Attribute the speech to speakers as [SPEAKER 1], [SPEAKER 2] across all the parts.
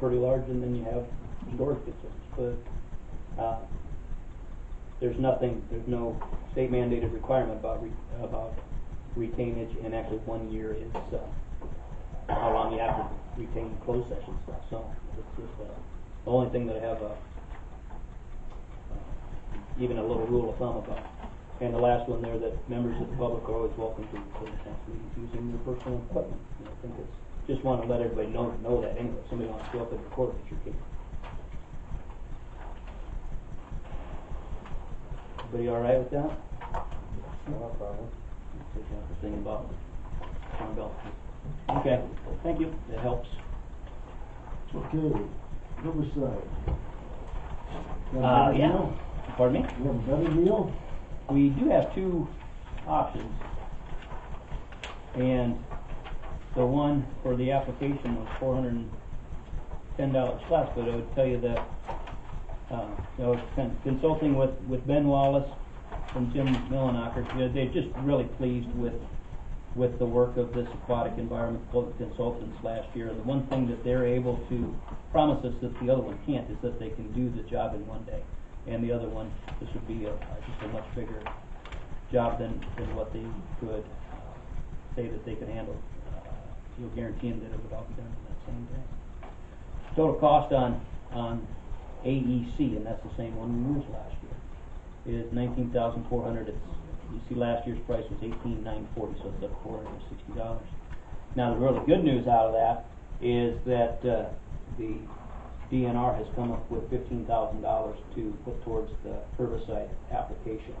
[SPEAKER 1] pretty large, and then you have storage facilities. But, uh, there's nothing, there's no state mandated requirement about, re- about retainage, and actually one year is, uh, how long you have to retain closed session stuff, so it's just, uh, the only thing that I have, uh, even a little rule of thumb about. And the last one there, that members of the public are always welcome to closed council meetings using their personal equipment. And I think it's, just wanna let everybody know, know that anyway, If somebody wants to show up and record it, you can. Everybody all right with that? No problem. Thing about Sean Bell. Okay, thank you, that helps.
[SPEAKER 2] Okay, Riverside.
[SPEAKER 1] Uh,
[SPEAKER 2] You have a better
[SPEAKER 1] yeah.
[SPEAKER 2] deal?
[SPEAKER 1] Pardon me?
[SPEAKER 2] You have a better deal?
[SPEAKER 1] we do have two options. And the one for the application was four hundred and ten dollars less, but I would tell you that, uh, I was con- consulting with, with Ben Wallace and Jim Millenacher, you know, they're just really pleased with, with the work of this aquatic environment consultants last year. And the one thing that they're able to promise us that the other one can't is that they can do the job in one day. And the other one, this would be a, uh, just a much bigger job than, than what they could uh, say that they could handle. Uh, You'll guarantee them that it would all be done in that same day. Total cost on, on AEC, and that's the same one we used last year, is nineteen thousand four hundred. It's, you see, last year's price was eighteen nine forty, so it's up four hundred and sixty dollars. Now, the really good news out of that is that, uh, the DNR has come up with fifteen thousand dollars to put towards the herbicide application.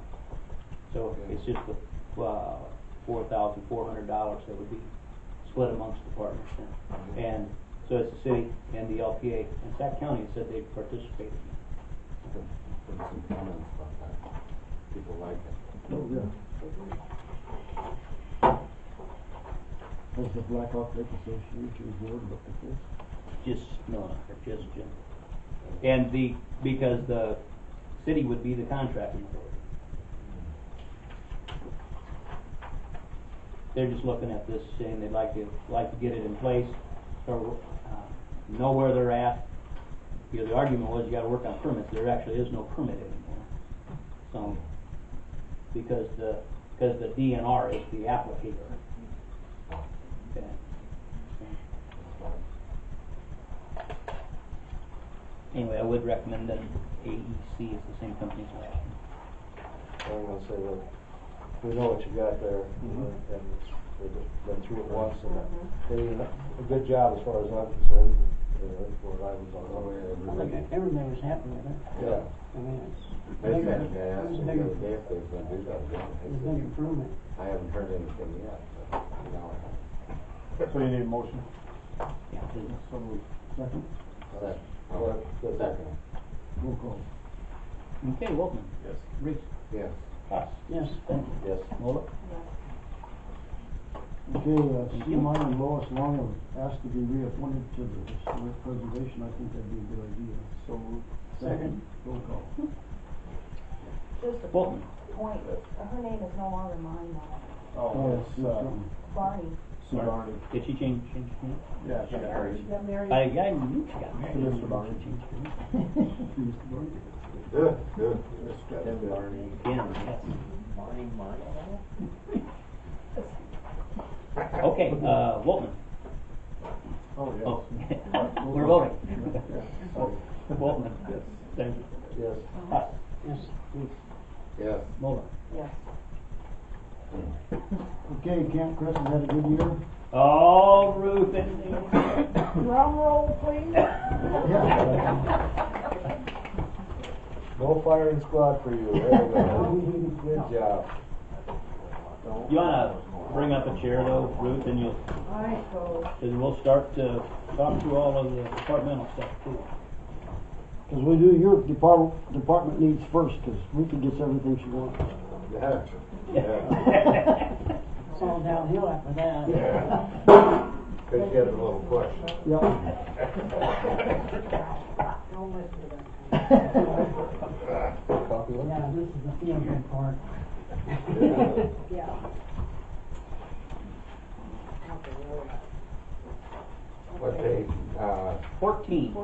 [SPEAKER 1] So it's just the, uh, four thousand four hundred dollars that would be split amongst the partners then. And so it's the city and the LPA, and Sac County said they participated.
[SPEAKER 3] There's some comments about that. People like it.
[SPEAKER 2] Oh, yeah. That's the Blackhawk Lake Association Board, but the first.
[SPEAKER 1] Just, no, just Jim. And the, because the city would be the contracting authority. They're just looking at this saying they'd like to, like to get it in place, or, uh, know where they're at. You know, the argument was you gotta work on permits, there actually is no permit anymore. So, because the, because the DNR is the applicator. Okay. Anyway, I would recommend that AEC is the same company as last.
[SPEAKER 3] I'm gonna say that, we know what you got there,
[SPEAKER 2] Mhm.
[SPEAKER 3] and they've been through it once, and
[SPEAKER 1] Mm-hmm.
[SPEAKER 3] they did a good job as far as I'm concerned, you know, where I was on the way.
[SPEAKER 4] I think
[SPEAKER 3] everybody-
[SPEAKER 4] everything was happening, right?
[SPEAKER 3] Yeah.
[SPEAKER 4] I mean, it's,
[SPEAKER 5] They
[SPEAKER 4] Big-
[SPEAKER 5] said, they asked me the other day if they've been doing that again. They
[SPEAKER 4] it's a big improvement.
[SPEAKER 5] said, I haven't heard anything yet, but now I have.
[SPEAKER 2] So you need a motion?
[SPEAKER 1] Yeah, please.
[SPEAKER 2] So moved. Second,
[SPEAKER 5] Second.
[SPEAKER 3] Well, that's-
[SPEAKER 5] Second.
[SPEAKER 2] roll call.
[SPEAKER 1] Okay, Wolfman. Yes. Reese.
[SPEAKER 5] Yes.
[SPEAKER 1] Cox.
[SPEAKER 4] Yes,
[SPEAKER 5] Yes.
[SPEAKER 1] Moller.
[SPEAKER 2] Okay, uh, CMI and Lois Long have asked to be reappointed to the Historic Preservation, I think that'd be a good idea. So moved. Second, roll call.
[SPEAKER 6] Just a
[SPEAKER 1] Bolton.
[SPEAKER 6] point, her name is no longer mine now,
[SPEAKER 2] Oh, it's, uh.
[SPEAKER 6] Barney.
[SPEAKER 2] Sue Barney.
[SPEAKER 1] Did she change, change her name?
[SPEAKER 2] Yeah, she married.
[SPEAKER 6] She got married.
[SPEAKER 1] I, I knew she got married.
[SPEAKER 2] Mr. Barney.
[SPEAKER 1] She changed her name.
[SPEAKER 2] Mr. Barney.
[SPEAKER 5] Good, good.
[SPEAKER 1] Again, yes. Okay, uh, Wolfman.
[SPEAKER 2] Oh, yeah.
[SPEAKER 1] Oh, we're voting. Wolfman. Yes. Sanders.
[SPEAKER 3] Yes.
[SPEAKER 1] Cox.
[SPEAKER 4] yes, yes.
[SPEAKER 5] Yes.
[SPEAKER 1] Moller.
[SPEAKER 6] Yes.
[SPEAKER 2] Okay, Camp Crescent had a good year.
[SPEAKER 1] All roofing.
[SPEAKER 6] Drum roll, please.
[SPEAKER 3] No firing squad for you, there we go. Good job.
[SPEAKER 1] You wanna bring up a chair though, Ruth, and you'll,
[SPEAKER 6] All right, so.
[SPEAKER 1] and we'll start to talk through all of the departmental stuff too.
[SPEAKER 2] Cause we do your department, department needs first, cause Ruthie gets everything she wants.
[SPEAKER 5] Yeah.
[SPEAKER 4] It's all downhill after that.
[SPEAKER 5] Could get a little question.
[SPEAKER 2] Yeah.
[SPEAKER 6] Don't listen to them.
[SPEAKER 4] Yeah, this is the feeling part.
[SPEAKER 6] Yeah. Not the road.
[SPEAKER 7] what page, uh,
[SPEAKER 5] Fourteen.